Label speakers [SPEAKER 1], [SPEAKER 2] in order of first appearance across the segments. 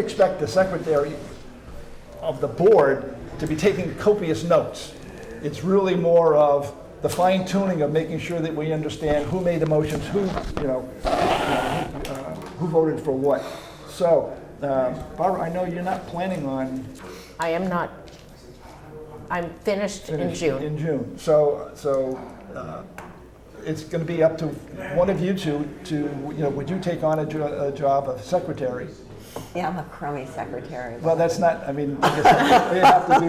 [SPEAKER 1] expect the secretary of the board to be taking copious notes. It's really more of the fine tuning of making sure that we understand who made the motions, who, you know, uh, who voted for what. So, uh, Barbara, I know you're not planning on
[SPEAKER 2] I am not, I'm finished in
[SPEAKER 1] finished
[SPEAKER 2] June.
[SPEAKER 1] In June. So, so uh, it's going to be up to one of you two to, you know, would you take on a jo- a job of secretary?
[SPEAKER 3] Yeah, I'm a crummy secretary.
[SPEAKER 1] Well, that's not, I mean, I guess we have to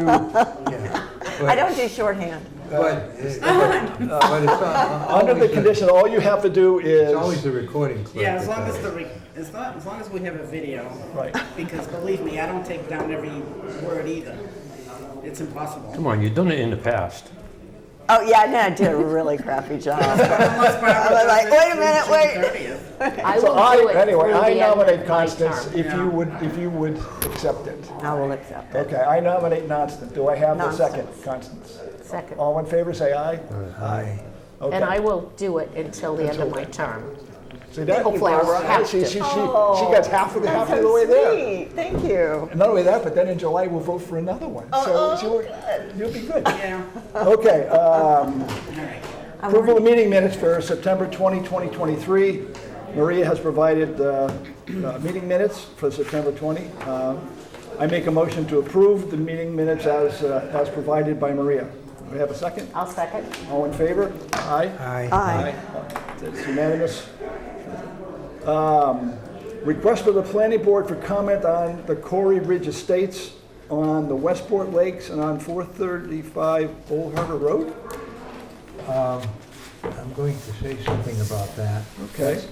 [SPEAKER 1] do,
[SPEAKER 3] I don't do shorthand.
[SPEAKER 4] But, it- but uh, but it's on-
[SPEAKER 1] Under the
[SPEAKER 4] always,
[SPEAKER 1] condition, all you have to do
[SPEAKER 4] it's always
[SPEAKER 1] is,
[SPEAKER 4] the recording clerk.
[SPEAKER 5] Yeah, as long as
[SPEAKER 4] that-
[SPEAKER 5] the, re- as long, as long as we have a video.
[SPEAKER 1] Right.
[SPEAKER 5] Because believe me, I don't take down every word either. It's impossible.
[SPEAKER 6] Come on, you've done it in the past.
[SPEAKER 3] Oh, yeah, no, I did a really crappy job.
[SPEAKER 5] Unless Barbara
[SPEAKER 3] was like,
[SPEAKER 5] does it
[SPEAKER 3] Uh, "Wait a minute,
[SPEAKER 5] through June
[SPEAKER 3] wait."
[SPEAKER 5] 30th.
[SPEAKER 2] I
[SPEAKER 1] so
[SPEAKER 2] will
[SPEAKER 1] I,
[SPEAKER 2] do it
[SPEAKER 1] anyway,
[SPEAKER 2] through the
[SPEAKER 1] I
[SPEAKER 2] end of
[SPEAKER 1] nominate
[SPEAKER 2] my
[SPEAKER 1] Constance
[SPEAKER 2] term.
[SPEAKER 1] if you would, if you would accept it.
[SPEAKER 3] I will accept it.
[SPEAKER 1] Okay, I nominate Constance. Do I have the second,
[SPEAKER 3] Constance.
[SPEAKER 1] Constance?
[SPEAKER 2] Second.
[SPEAKER 1] All in favor, say aye.
[SPEAKER 4] Uh, Aye.
[SPEAKER 2] And I
[SPEAKER 1] Okay.
[SPEAKER 2] will do it until the end of my term.
[SPEAKER 1] See, that,
[SPEAKER 2] Hopefully I won't
[SPEAKER 1] Barbara,
[SPEAKER 2] have
[SPEAKER 1] she, she,
[SPEAKER 2] to. Oh,
[SPEAKER 1] she, she gets half of, half of the way there.
[SPEAKER 3] sweet. Thank you.
[SPEAKER 1] And not only that, but then in July, we'll vote for another one.
[SPEAKER 2] Oh,
[SPEAKER 1] So she will- you'll be good.
[SPEAKER 5] Yeah,
[SPEAKER 1] Okay, um,
[SPEAKER 5] all right.
[SPEAKER 1] Approval of meeting minutes for September 20, 2023. Maria has provided uh, uh, meeting minutes for September 20. Uh, I make a motion to approve the meeting minutes as, uh, as provided by Maria. Do we have a second?
[SPEAKER 2] I'll second.
[SPEAKER 1] All in favor? Aye.
[SPEAKER 4] Aye.
[SPEAKER 3] Aye.
[SPEAKER 1] It's unanimous. Um, Request of the planning board for comment on the Corey Ridge Estates on the Westport Lakes and on 435 Old Harbor Road?
[SPEAKER 4] I'm going to say something about that.
[SPEAKER 1] Okay.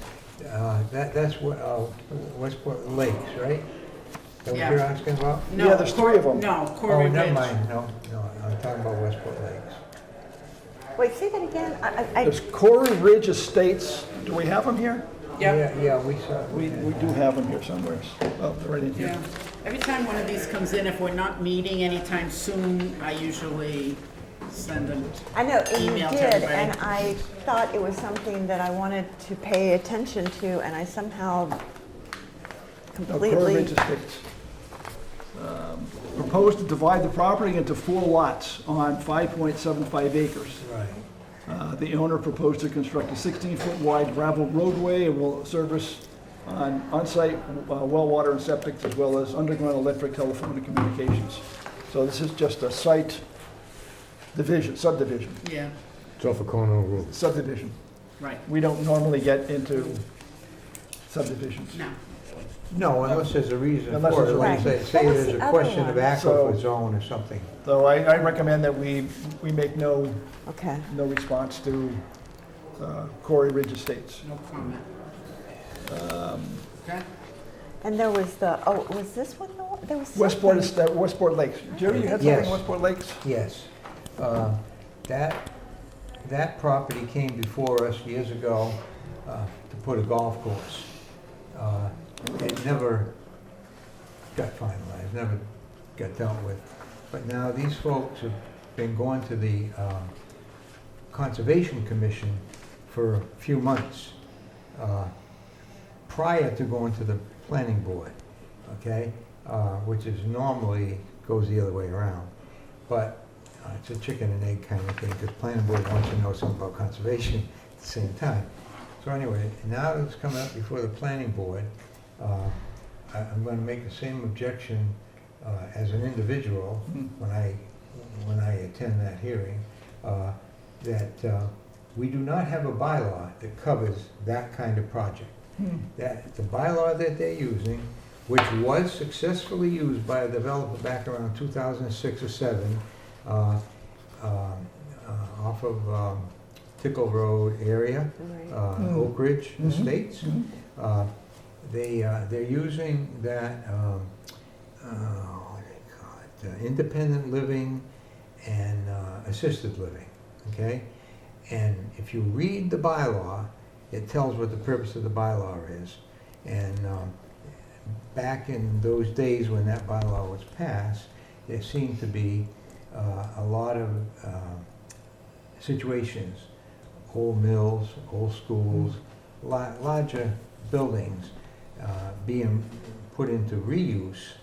[SPEAKER 4] Uh, That, that's what, uh, Westport Lakes, right? That what
[SPEAKER 5] Yeah.
[SPEAKER 4] you're asking about?
[SPEAKER 5] No,
[SPEAKER 1] Yeah, there's three of them.
[SPEAKER 5] No, Corey
[SPEAKER 4] Oh,
[SPEAKER 5] Ridge.
[SPEAKER 4] never mind, no, no, I'm talking about Westport Lakes.
[SPEAKER 3] Wait, say that again? I, I, I-
[SPEAKER 1] There's Corey Ridge Estates, do we have them here?
[SPEAKER 5] Yep,
[SPEAKER 4] Yeah, yeah, we saw.
[SPEAKER 1] We, we do have them here somewhere. Oh, they're right in here.
[SPEAKER 5] yeah. Every time one of these comes in, if we're not meeting anytime soon, I usually send them.
[SPEAKER 3] I know, and you
[SPEAKER 5] Email to
[SPEAKER 3] did,
[SPEAKER 5] everybody.
[SPEAKER 3] and I thought it was something that I wanted to pay attention to, and I somehow
[SPEAKER 1] No, Corey Ridge
[SPEAKER 3] completely,
[SPEAKER 1] Estates. Um, Proposed to divide the property into four lots on 5.75 acres.
[SPEAKER 4] Right.
[SPEAKER 1] Uh, The owner proposed to construct a 16-foot wide gravel roadway and will service on on-site uh, well water and septic as well as underground electric, telephone, and communications. So this is just a site division, subdivision,
[SPEAKER 5] Yeah,
[SPEAKER 6] It's off a Cornell Road.
[SPEAKER 1] subdivision.
[SPEAKER 5] right,
[SPEAKER 1] We don't normally get into subdivisions.
[SPEAKER 5] no.
[SPEAKER 4] No, unless there's a reason
[SPEAKER 1] Unless
[SPEAKER 4] for
[SPEAKER 1] there's
[SPEAKER 4] it,
[SPEAKER 1] a
[SPEAKER 4] like
[SPEAKER 3] reason.
[SPEAKER 4] say, say
[SPEAKER 3] What was
[SPEAKER 4] there's
[SPEAKER 3] the
[SPEAKER 4] a
[SPEAKER 3] other
[SPEAKER 4] question of
[SPEAKER 3] one?
[SPEAKER 1] So-
[SPEAKER 4] aquifer zone or something.
[SPEAKER 1] So I, I recommend that we, we make no,
[SPEAKER 3] okay.
[SPEAKER 1] no response to uh, Corey Ridge Estates.
[SPEAKER 5] No comment. Okay,
[SPEAKER 3] And there was the, oh, was this one, the one- there was
[SPEAKER 1] Westport,
[SPEAKER 3] something?
[SPEAKER 1] is- uh, Westport Lakes. Jerry, you had something on
[SPEAKER 4] Yes.
[SPEAKER 1] Westport Lakes?
[SPEAKER 4] Yes. Uh, That, that property came before us years ago uh, to put a golf course. Uh, It never got finalized, never got dealt with. But now these folks have been going to the um, Conservation Commission for a few months uh, prior to going to the planning board, okay? Uh, Which is normally goes the other way around. But uh, it's a chicken and egg kind of thing, because planning board wants to know something about conservation at the same time. So anyway, now that it's coming up before the planning board, uh, I- I'm going to make the same objection uh, as an individual
[SPEAKER 1] Hmm.
[SPEAKER 4] when I, when I attend that hearing, uh, that uh, we do not have a bylaw that covers that kind of project
[SPEAKER 1] Hmm.
[SPEAKER 4] that the bylaw that they're using, which was successfully used by a developer back around 2006 or 7, uh, um, uh, off of um, Tickle Road area,
[SPEAKER 3] Right.
[SPEAKER 4] uh, Oak Ridge Estates. Uh, They, uh, they're using that, um, uh, what do they call it, uh, independent living and uh, assisted living, okay? And if you read the bylaw, it tells what the purpose of the bylaw is. And um, back in those days when that bylaw was passed, there seemed to be uh, a lot of um, situations, old mills, old schools, la- larger buildings uh, being put into reuse,